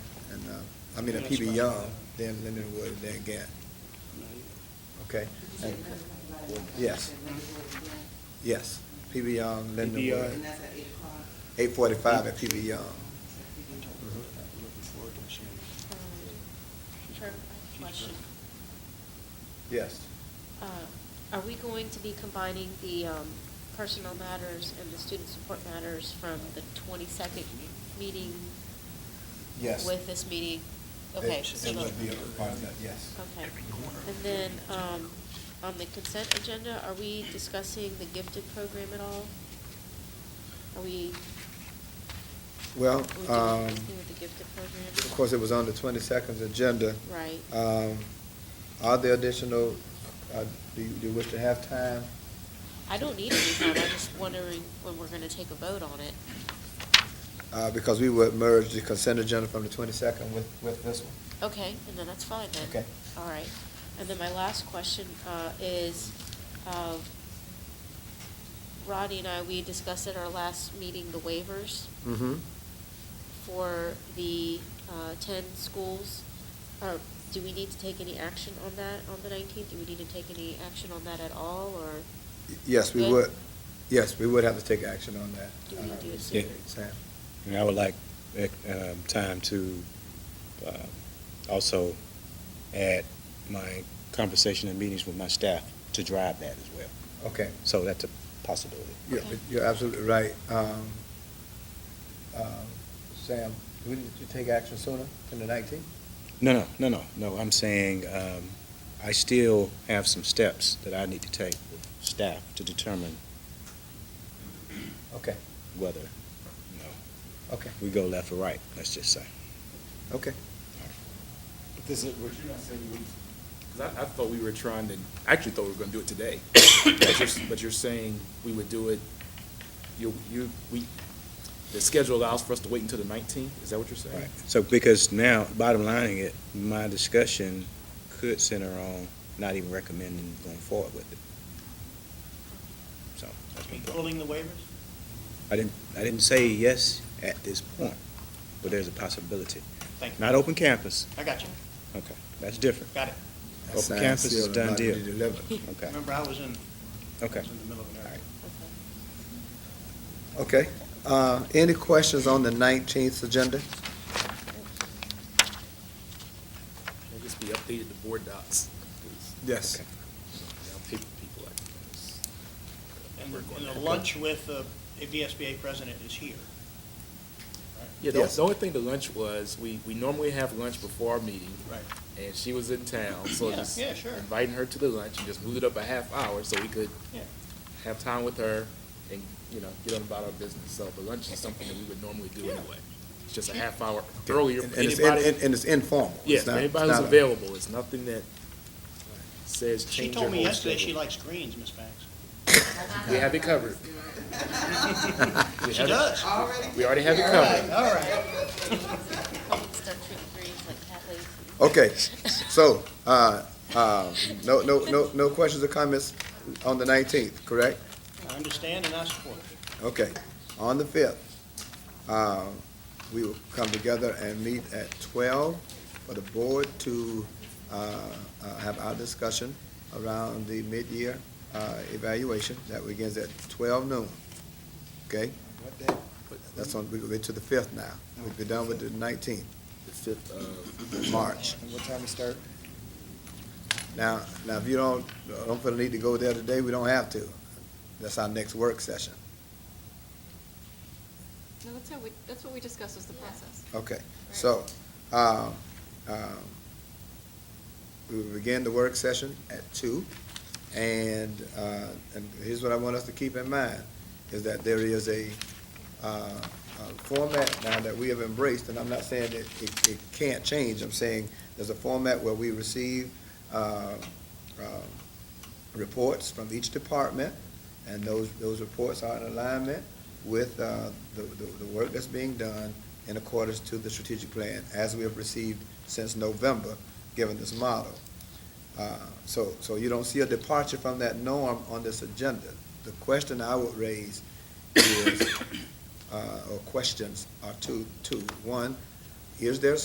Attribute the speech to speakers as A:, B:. A: now. uh, I mean, if he be
B: That's right.
A: young, then Leonard Wood, then Gant, okay? And- Yes. Yes, PB Young, Linda
B: PB Young.
A: Wood,
C: And that's at eight o'clock.
A: Uh, eight forty-five at um, PB Young.
B: Looking forward to seeing you.
D: Her Um, question,
A: Yes.
D: uh, are we going to be combining the um, personnel matters and the student support matters from the twenty-second meeting
A: Yes.
D: with this meeting?
A: It-
D: Okay, so
A: It
D: the-
A: would be a part of that, yes.
D: okay. And then, um, on the consent agenda, are we discussing the gifted program at all? Are we,
A: Well,
D: are we doing
A: um,
D: anything with the gifted program?
A: of course, it was on the twenty-second agenda.
D: Right.
A: Um, are there additional, uh, do you, do you wish to have time?
D: I don't need any time, I'm just wondering when we're gonna take a vote on it.
A: Uh, because we would merge the consent agenda from the twenty-second with, with this one.
D: Okay, and then that's fine then.
A: Okay.
D: All right. And then my last question uh, is, uh, Rodney and I, we discussed at our last meeting the waivers
A: Mm-hmm.
D: for the uh, 10 schools. Or Do we need to take any action on that on the 19th? Do we need to take any action on that at all, or
A: Yes, we
D: Good.
A: would, yes, we would have to take action on that.
D: do we
A: Uh,
D: do it
E: Yeah.
D: separate?
A: Sam?
E: And I would like um, time to uh, also add my conversation and meetings with my staff to drive that as well.
A: Okay.
E: So that's a possibility.
A: You're,
D: Okay.
A: you're absolutely right. Um, um, Sam, do we need to take action sooner than the nineteenth?
E: No, no, no, no, no, I'm saying um, I still have some steps that I need to take with staff to determine
A: Okay,
E: whether, you know,
A: okay,
E: we go left or right, let's just say.
A: okay.
F: But This is, what you're not saying, because I, I thought we were trying to, I actually thought we were gonna do it today. But you're, but you're saying we would do it, you, you, we, the schedule allows for us to wait until the nineteenth? Is that what you're saying?
E: Right. So because now, bottom lining it, my discussion could center on not even recommending going forward with it. So that's my point.
B: Pulling the waivers?
E: I didn't, I didn't say yes at this point, but there's a possibility.
B: Thank you.
E: Not open campus.
B: I got you.
E: Okay, that's different.
B: Got it.
A: That
E: Open
A: sign
E: campus is
A: still
E: done
A: not
E: deal.
A: to be delivered.
E: Okay,
B: Remember, I was in, I was
E: okay.
B: in the middle of an
E: All
B: area.
E: right.
D: Okay.
A: Okay, uh, any questions on the nineteenth agenda?
F: Can it just be updated to board docs?
A: Yes.
F: Okay. Yeah, I'll pay for people like this.
B: And
F: Work on
B: and
F: that.
B: the lunch with the VSBA president is here.
F: Yeah, the,
A: Yes.
F: the only thing to lunch was, we, we normally have lunch before our meeting.
B: Right.
F: And she was in town, so
B: Yeah,
F: just
B: yeah, sure.
F: inviting her to the lunch and just moved it up a half hour so we could
B: Yeah.
F: have time with her and, you know, get on about our business. So the lunch is something that we would normally do
B: Yeah.
F: anyway. It's just a half hour earlier.
A: And
F: for
A: and it's, in-
F: Anybody,
A: and and it's informal. It's
F: yeah, for
A: not- it's
F: anybody who's
A: not a-
F: available. It's nothing that says
B: She
F: change your
B: told me
F: whole
B: yesterday she
F: schedule.
B: likes greens, Ms. Banks.
F: We have it covered. We
B: She
F: have it-
B: does. All
F: We already have it
B: right,
F: covered.
B: all right.
D: Start with greens like cat ladies.
A: Okay, so, uh, uh, no, no, no, no questions or comments on the nineteenth, correct?
B: I understand and I support it.
A: Okay, on the fifth, uh, we will come together and meet at twelve for the board to, uh, uh, have our discussion around the mid-year, uh, evaluation. That begins at twelve noon, okay? That's on, we'll get to the fifth now. We'll be done with the nineteenth,
F: The fifth of,
A: March.
G: And what time we start?
A: Now, now, if you don't, don't feel the need to go there today, we don't have to. That's our next work session.
H: No, that's how we, that's what we discussed was the process.
A: Okay, so, um, um, we will begin the work session at two. And, uh, and here's what I want us to keep in mind, is that there is a, uh, a format now that we have embraced, and I'm not saying that it, it can't change, I'm saying there's a format where we receive, uh, um, reports from each department, and those, those reports are in alignment with, uh, the, the, the work that's being done in accordance to the strategic plan as we have received since November, given this model. Uh, So, so you don't see a departure from that norm on this agenda. The question I would raise is, uh, or questions are two, two. One, is there